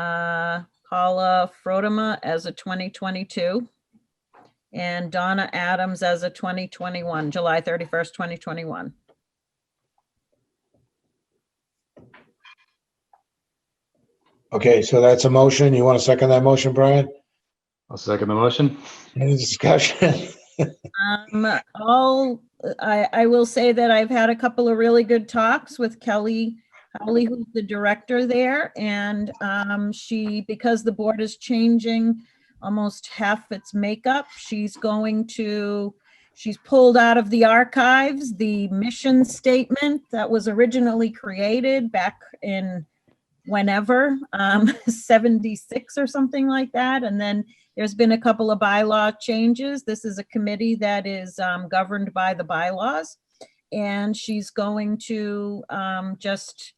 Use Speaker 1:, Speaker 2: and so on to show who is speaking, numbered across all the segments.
Speaker 1: uh, Paula Frodema as a 2022 and Donna Adams as a 2021, July 31st, 2021.
Speaker 2: Okay, so that's a motion. You want to second that motion, Brian?
Speaker 3: I'll second the motion.
Speaker 2: Any discussion?
Speaker 1: Um, all, I, I will say that I've had a couple of really good talks with Kelly Howley, who's the director there, and, um, she, because the board is changing almost half its makeup, she's going to, she's pulled out of the archives the mission statement that was originally created back in whenever, um, seventy-six or something like that, and then there's been a couple of bylaw changes. This is a committee that is um, governed by the bylaws. And she's going to um, just,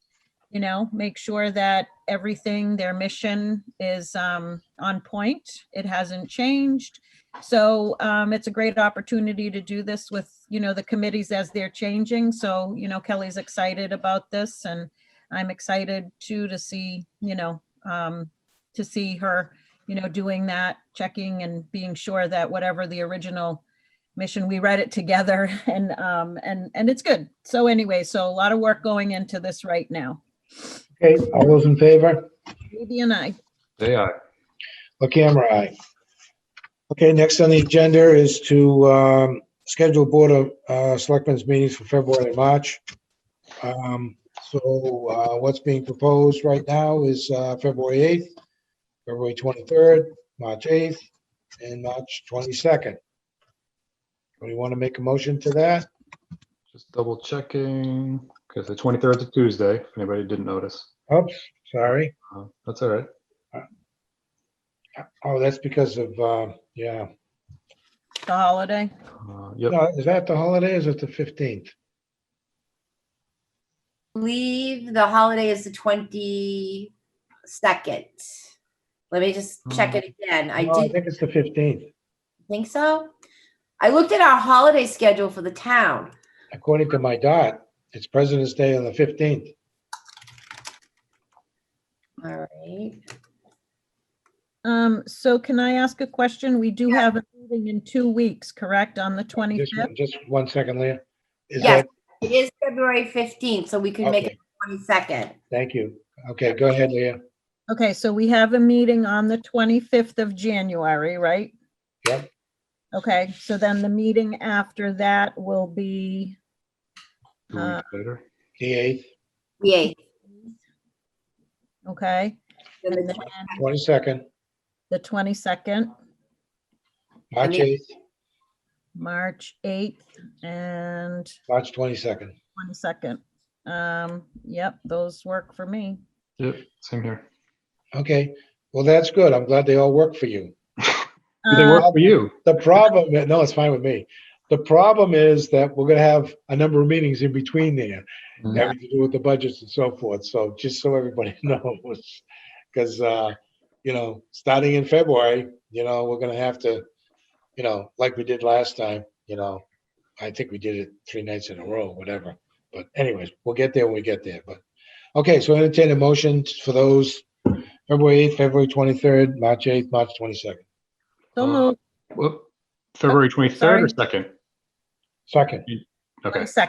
Speaker 1: you know, make sure that everything, their mission is um, on point. It hasn't changed. So um, it's a great opportunity to do this with, you know, the committees as they're changing. So, you know, Kelly's excited about this and I'm excited too to see, you know, um, to see her you know, doing that, checking and being sure that whatever the original mission, we read it together and, um, and, and it's good. So anyway, so a lot of work going into this right now.
Speaker 2: Okay, all those in favor?
Speaker 1: Ruby and I,
Speaker 3: Day aye.
Speaker 2: The camera aye. Okay, next on the agenda is to um, schedule Board of uh, Selectmen's meetings for February and March. Um, So uh, what's being proposed right now is uh, February 8th, February 23rd, March 8th, and March 22nd. Do you want to make a motion to that?
Speaker 3: Just double checking, because the 23rd is a Tuesday, if anybody didn't notice.
Speaker 2: Oops, sorry.
Speaker 3: Uh, That's all right.
Speaker 2: Oh, that's because of, uh, yeah.
Speaker 1: the holiday.
Speaker 3: Uh, Yep,
Speaker 2: No, Is that the holiday? or Is it the 15th?
Speaker 4: believe the holiday is the twenty-second. Let me just check it again. I
Speaker 2: No, Mm. I
Speaker 4: did
Speaker 2: think it's the 15th.
Speaker 4: think so. I looked at our holiday schedule for the town.
Speaker 2: According to my dot, it's President's Day on the fifteenth.
Speaker 4: All right.
Speaker 1: Um, so can I ask a question? We do have a meeting in two weeks, correct? On the 25th?
Speaker 2: Just one second, Leah. Is
Speaker 4: Yes,
Speaker 2: that,
Speaker 4: it is February fifteenth, so we can make it
Speaker 2: okay,
Speaker 4: twenty-second.
Speaker 2: thank you. Okay, go ahead, Leah.
Speaker 1: Okay, so we have a meeting on the 25th of January, right?
Speaker 2: Yep.
Speaker 1: Okay, so then the meeting after that will be,
Speaker 3: two weeks later.
Speaker 2: The eighth,
Speaker 4: The eighth.
Speaker 1: okay?
Speaker 4: then
Speaker 1: And
Speaker 4: the
Speaker 1: then
Speaker 4: twen-
Speaker 2: twenty-second,
Speaker 1: the 22nd.
Speaker 2: March
Speaker 4: Twenty-
Speaker 2: eighth,
Speaker 1: March 8th and
Speaker 2: March twenty-second.
Speaker 1: 22nd. Um, yep, those work for me.
Speaker 3: Yep, same here.
Speaker 2: Okay, well, that's good. I'm glad they all work for you.
Speaker 3: Do they work
Speaker 1: Uh,
Speaker 3: for you?
Speaker 2: The problem, no, it's fine with me. The problem is that we're gonna have a number of meetings in between there,
Speaker 3: Mhm.
Speaker 2: having to do with the budgets and so forth. So just so everybody knows, because, uh, you know, starting in February, you know, we're gonna have to, you know, like we did last time, you know, I think we did it three nights in a row, whatever. But anyways, we'll get there when we get there, but, okay, so entertain a motion for those February eighth, February twenty-third, March eighth, March twenty-second.
Speaker 1: So moved,
Speaker 3: Oh, Whoop. February 23rd or
Speaker 1: sorry.
Speaker 3: 2nd?
Speaker 2: Second,
Speaker 3: Okay,
Speaker 1: 22nd.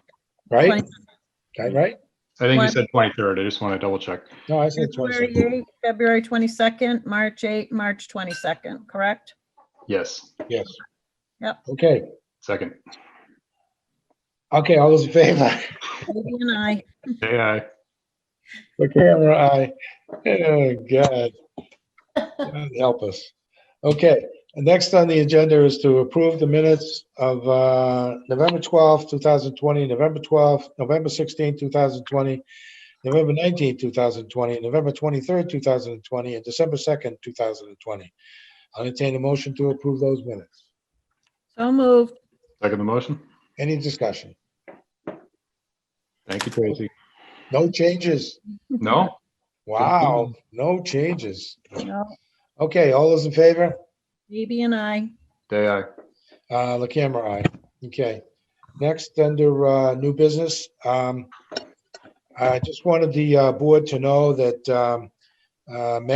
Speaker 2: right?
Speaker 1: 22nd.
Speaker 2: Right, right?
Speaker 3: I think you
Speaker 1: One.
Speaker 3: said 23rd. I just want to double check.
Speaker 2: No, I said
Speaker 1: February
Speaker 2: 22nd.
Speaker 1: 8th, February 22nd, March 8th, March 22nd, correct?
Speaker 3: Yes,
Speaker 2: Yes.
Speaker 1: Yep.
Speaker 2: Okay,
Speaker 3: second.
Speaker 2: okay, all those in favor?
Speaker 1: Katie and I,
Speaker 3: Day aye.
Speaker 2: The camera eye. Oh, God. God. Help us. Okay, next on the agenda is to approve the minutes of uh, November twelfth, two 2020, November twelfth, November sixteenth, two 2020, November nineteenth, two 2020, November twenty-third, two 2020, and December second, two 2020. I'll entertain a motion to approve those minutes.
Speaker 1: so moved.
Speaker 3: Second the motion.
Speaker 2: Any discussion?
Speaker 3: Thank you, Tracy.
Speaker 2: No changes?
Speaker 3: No?
Speaker 2: Wow, no changes.
Speaker 1: No,
Speaker 2: Okay, all those in favor?
Speaker 1: Katie and I,
Speaker 3: Day aye.
Speaker 2: Uh, the camera eye. Okay. Next, under, uh, new business, um, I just wanted the, uh, board to know that, um, uh, Matt